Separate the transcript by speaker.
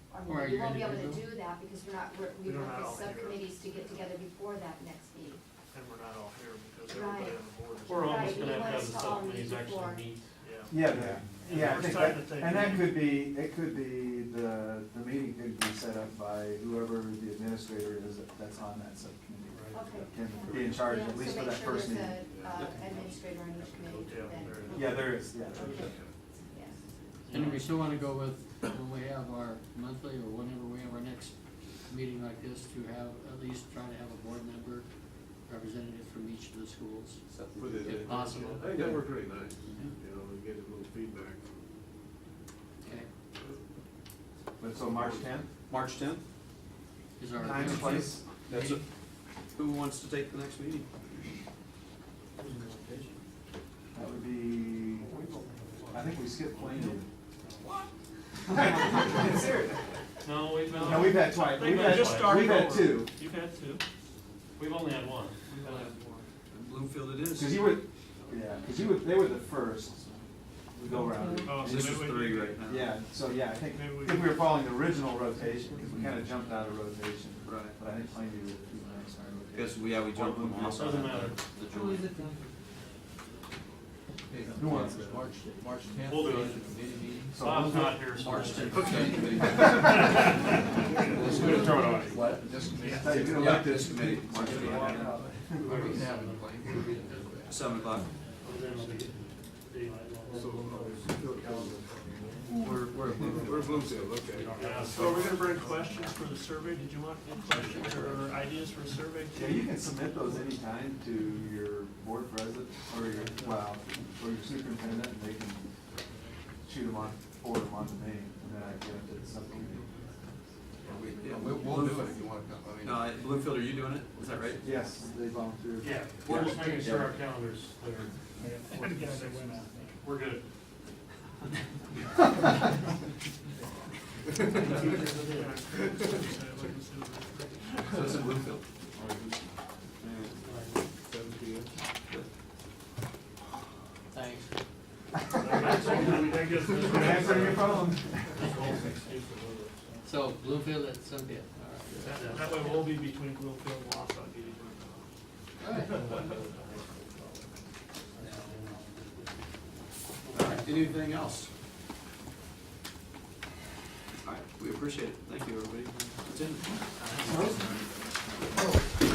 Speaker 1: I
Speaker 2: Or are
Speaker 1: mean, you
Speaker 2: you
Speaker 1: won't be able to
Speaker 2: individual?
Speaker 1: do that because we're not, we're-
Speaker 3: We
Speaker 1: we
Speaker 3: don't
Speaker 1: want
Speaker 3: have
Speaker 1: the
Speaker 3: all here.
Speaker 1: subcommittees to get together before that next meeting.
Speaker 3: and we're not all here because everybody
Speaker 1: Right.
Speaker 3: on the board is.
Speaker 4: We're
Speaker 1: Right,
Speaker 4: almost
Speaker 1: you
Speaker 4: gonna have to
Speaker 1: want
Speaker 4: have
Speaker 1: us
Speaker 4: the
Speaker 1: to all meet
Speaker 4: subcommittees
Speaker 1: before.
Speaker 4: actually meet.
Speaker 3: Yeah.
Speaker 5: Yeah, but,
Speaker 3: And
Speaker 5: yeah, I
Speaker 3: we're
Speaker 5: think that,
Speaker 3: starting to take-
Speaker 5: and that could be, it could be, the, the meeting could be set up by whoever the administrator is that- that's on that subcommittee.
Speaker 1: Okay.
Speaker 5: Can be in charge,
Speaker 1: Yeah,
Speaker 5: at least
Speaker 1: so
Speaker 5: for
Speaker 1: make
Speaker 5: that
Speaker 1: sure
Speaker 5: first meeting.
Speaker 1: there's a, uh, Administrator on each committee,
Speaker 3: Yeah,
Speaker 1: then.
Speaker 3: there
Speaker 5: Yeah, there is, yeah.
Speaker 1: Okay, yes.
Speaker 2: And we still wanna go with, when we have our monthly or whenever we have our next meeting like this, to have, at least try to have a board member representative from each of the schools,
Speaker 6: Put it
Speaker 2: if
Speaker 6: in.
Speaker 2: possible.
Speaker 6: I think that worked pretty nice, you know, and get a little feedback.
Speaker 2: Okay,
Speaker 5: But so March tenth,
Speaker 7: March tenth,
Speaker 2: is our.
Speaker 5: time and place,
Speaker 7: that's it. Who wants to take the next meeting?
Speaker 5: that would be, I think we skipped Plainview.
Speaker 4: No, we've, uh,
Speaker 5: No, we've had twice,
Speaker 4: They
Speaker 5: we've
Speaker 4: might
Speaker 5: had,
Speaker 4: just start
Speaker 5: we've had
Speaker 4: over.
Speaker 5: two,
Speaker 4: you've had two. We've only had one. We've only had one.
Speaker 7: And Bloomfield it
Speaker 5: cause
Speaker 7: is.
Speaker 5: you were, yeah, cause you were, they were the first to go around.
Speaker 3: Oh, so
Speaker 7: This is
Speaker 3: maybe we
Speaker 7: three
Speaker 3: need-
Speaker 7: right now.
Speaker 5: Yeah, so yeah, I think,
Speaker 3: Maybe we-
Speaker 5: I think we were following the original rotation, because we kind of jumped out of rotation.
Speaker 7: Right.
Speaker 5: But I think Plainview was the next our
Speaker 7: Because,
Speaker 5: rotation.
Speaker 7: we- yeah, we jumped them off.
Speaker 4: Doesn't matter.
Speaker 7: The joint.
Speaker 5: Who wants it?
Speaker 8: March, March tenth,
Speaker 4: We'll do it.
Speaker 8: committee meetings.
Speaker 5: So
Speaker 4: Bob's
Speaker 5: we'll-
Speaker 4: not here, so.
Speaker 8: March tenth.
Speaker 5: Let's do it, throw it on you.
Speaker 8: What? This committee.
Speaker 5: Hey, you don't
Speaker 7: Yeah,
Speaker 5: like
Speaker 7: this
Speaker 5: this.
Speaker 7: committee, March tenth,
Speaker 8: We can have it, like, we can do that.
Speaker 7: seven o'clock.
Speaker 6: We're, we're, we're Bloomfield, okay.
Speaker 4: Yeah, so are we gonna bring questions for the survey? Did you want any questions or ideas for a survey?
Speaker 5: Yeah, you can submit those anytime to your board president, or your, well, or your superintendent, and they can shoot them on, forward them on to me, and then I give it to the subcommittee.
Speaker 7: We- yeah,
Speaker 8: We'll, we'll do it if you want to come, I mean.
Speaker 7: No, I- Bloomfield, are you doing it? Is that right?
Speaker 5: Yes, they volunteer.
Speaker 4: Yeah, we're just making sure our calendars are, we're good.
Speaker 7: So it's in Bloomfield.
Speaker 6: Seven P M.
Speaker 2: Thanks.
Speaker 5: Answer your phone.
Speaker 2: So Bloomfield at Sunday, all
Speaker 4: That that way we'll be between Bloomfield and Wausau getting one.
Speaker 2: right.
Speaker 7: All right, anything else? All right, we appreciate it. Thank you, everybody. That's it.
Speaker 5: Most-